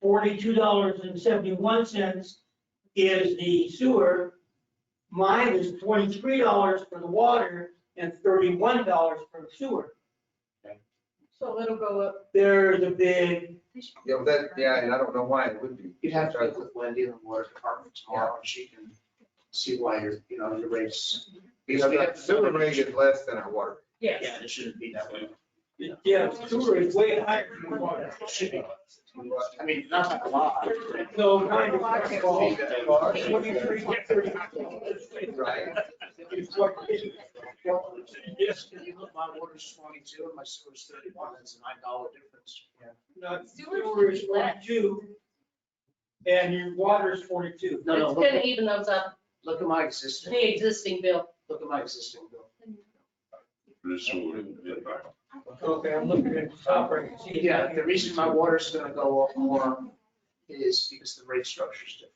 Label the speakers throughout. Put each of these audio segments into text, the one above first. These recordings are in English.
Speaker 1: forty-two dollars and seventy-one cents is the sewer. Mine is twenty-three dollars for the water and thirty-one dollars for the sewer.
Speaker 2: So it'll go up.
Speaker 1: There's a big,
Speaker 3: Yeah, but that, yeah, and I don't know why it would be.
Speaker 4: You'd have to talk with Wendy in the water department tomorrow, and she can see why your, you know, your rates.
Speaker 3: Because the sewer rate is less than our water.
Speaker 4: Yeah, it shouldn't be that way.
Speaker 1: yeah, sewer is way higher than water.
Speaker 4: It should be. I mean, not by a lot.
Speaker 1: So kind of.
Speaker 3: Right?
Speaker 1: 23, 30. It's what it is.
Speaker 4: Yes, and you look, my water's twenty-two and my sewer's thirty-one, that's a nine dollar difference.
Speaker 1: Not-
Speaker 5: Sewer's
Speaker 1: Sewer is
Speaker 5: less.
Speaker 1: forty-two and your water is forty-two.
Speaker 4: No, no,
Speaker 5: It's
Speaker 4: look,
Speaker 5: gonna
Speaker 4: at-
Speaker 5: even those up,
Speaker 4: look at my existing,
Speaker 5: the existing bill.
Speaker 4: look at my existing bill.
Speaker 6: This would, yeah.
Speaker 1: Okay, I'm looking at the top right. and see.
Speaker 4: Yeah, the reason my water's gonna go up more is because the rate structure's different.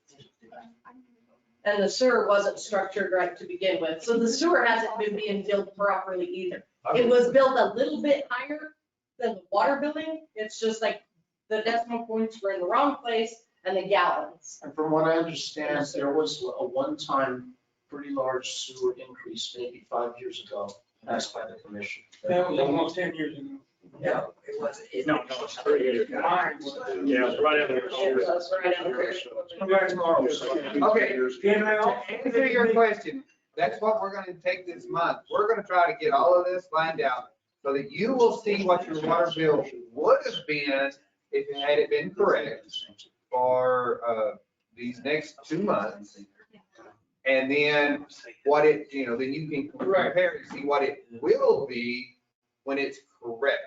Speaker 5: And the sewer wasn't structured right to begin with, so the sewer hasn't been being billed properly either. It was billed a little bit higher than the water billing, it's just like the decimal points were in the wrong place and the gallons.
Speaker 4: And from what I understand, there was a one-time pretty large sewer increase maybe five years ago, passed by the commission.
Speaker 1: That was almost ten years ago.
Speaker 4: Yeah.
Speaker 2: It was, it
Speaker 7: No, no, it's three years.
Speaker 1: Mine was.
Speaker 6: Yeah, it's right in there.
Speaker 5: It was right out of there.
Speaker 4: Come back tomorrow.
Speaker 3: Okay.
Speaker 1: Can I al-
Speaker 3: To answer your question, that's what we're gonna take this month. We're gonna try to get all of this lined out so that you will see what your water bill would have been if it had it been correct for, uh, these next two months. And then what it, you know, then you can compare and see what it will be when it's correct.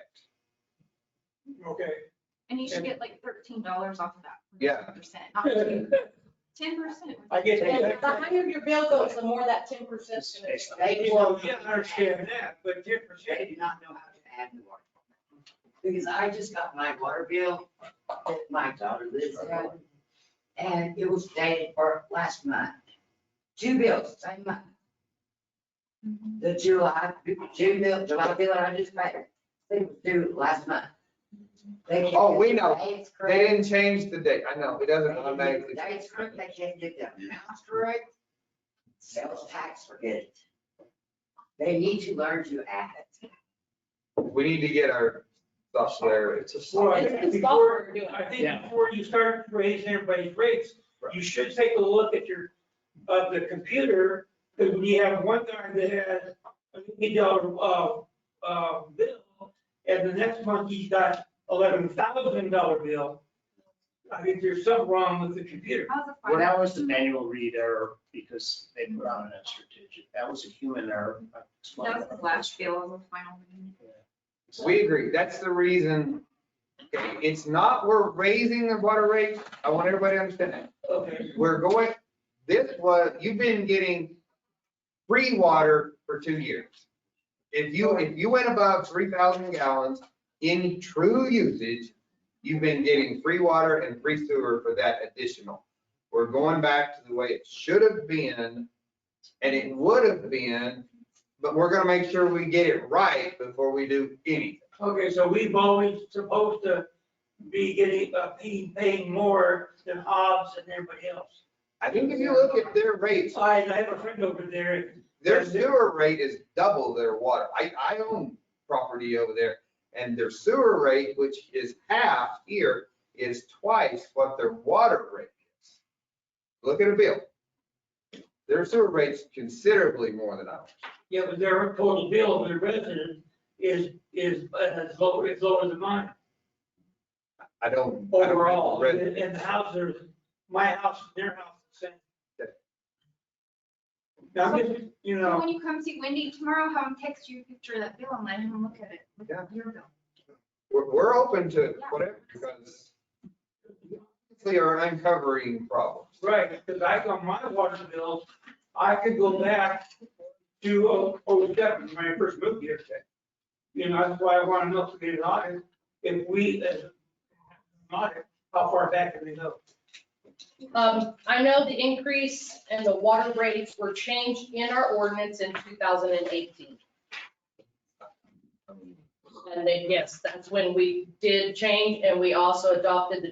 Speaker 1: Okay.
Speaker 8: And you should get like thirteen dollars off of that.
Speaker 3: Yeah.
Speaker 8: Percent, not ten percent.
Speaker 1: I get
Speaker 5: And the
Speaker 1: that.
Speaker 5: higher your bill goes, the more that ten percent is gonna be.
Speaker 1: I get, well, yeah, I understand that, but ten
Speaker 2: I
Speaker 1: percent,
Speaker 2: do not know how to add the water. Because I just got my water bill that my daughter lives in. And it was dated for last month. Two bills, same month. The July, June bill, July bill I just paid, they were due last month. They can't
Speaker 3: Oh, we
Speaker 2: get the
Speaker 3: know.
Speaker 2: dates
Speaker 3: They
Speaker 2: correct.
Speaker 3: didn't change the date. I know, it
Speaker 2: They
Speaker 3: doesn't
Speaker 2: can't get the
Speaker 3: automatically.
Speaker 2: Dates correct, they can't get the amounts correct. Sales tax, forget it. They need to learn to add it.
Speaker 3: We need to get our software.
Speaker 1: it's a slow. I
Speaker 5: It's
Speaker 1: think
Speaker 5: the
Speaker 1: before-
Speaker 5: software doing it.
Speaker 1: I think
Speaker 4: Yeah.
Speaker 1: before you start raising everybody's rates, you should take a look at your, of the computer, because when you have one guy that has an eight dollar, uh, uh, bill, and the next month he's got eleven thousand dollar bill, I think there's something wrong with the computer.
Speaker 8: How's the
Speaker 4: Well,
Speaker 8: fire-
Speaker 4: that was the manual read error because they put on an extra digit. That was a human error. I explained
Speaker 8: That was the last bill of the final. meeting.
Speaker 3: We agree. That's the reason. Okay, It's not, we're raising the water rate. I want everybody to understand that.
Speaker 1: Okay.
Speaker 3: We're going, this was, you've been getting free water for two years. If you, if you went above three thousand gallons in true usage, you've been getting free water and free sewer for that additional. We're going back to the way it should have been, and it would have been, but we're gonna make sure we get it right before we do anything.
Speaker 1: Okay, so we've always supposed to be getting, uh, paying, paying more than Hobbs and everybody else.
Speaker 3: I think if you look at their rates,
Speaker 1: I, I have a friend over there,
Speaker 3: Their sewer rate is double their water. I, I own property over there and their sewer rate, which is half here, is twice what their water rate is. Look at a bill. Their sewer rate's considerably more than ours.
Speaker 1: yeah, but their total bill of the resident is, is, uh, is lower, is lower than mine
Speaker 3: I don't. I don't have the
Speaker 1: overall.
Speaker 3: rest.
Speaker 1: And and the house, there's, my house, and their house, the same. Now, I'm just, you
Speaker 8: So
Speaker 1: know,
Speaker 8: When you come see Wendy tomorrow, have him text you a picture of that bill and let him look at it. Look at Your bill.
Speaker 3: We're, we're open to whatever because we are uncovering problems.
Speaker 1: right, because I got my water bill, I could go back to oh, 07 when I first moved here. You know, that's why I want to know if we get an audit, if we, uh, audit, how far back can we go?
Speaker 5: Um, I know the increase and the water rates were changed in our ordinance in two thousand and eighteen. And then, yes, that's when we did change and we also adopted the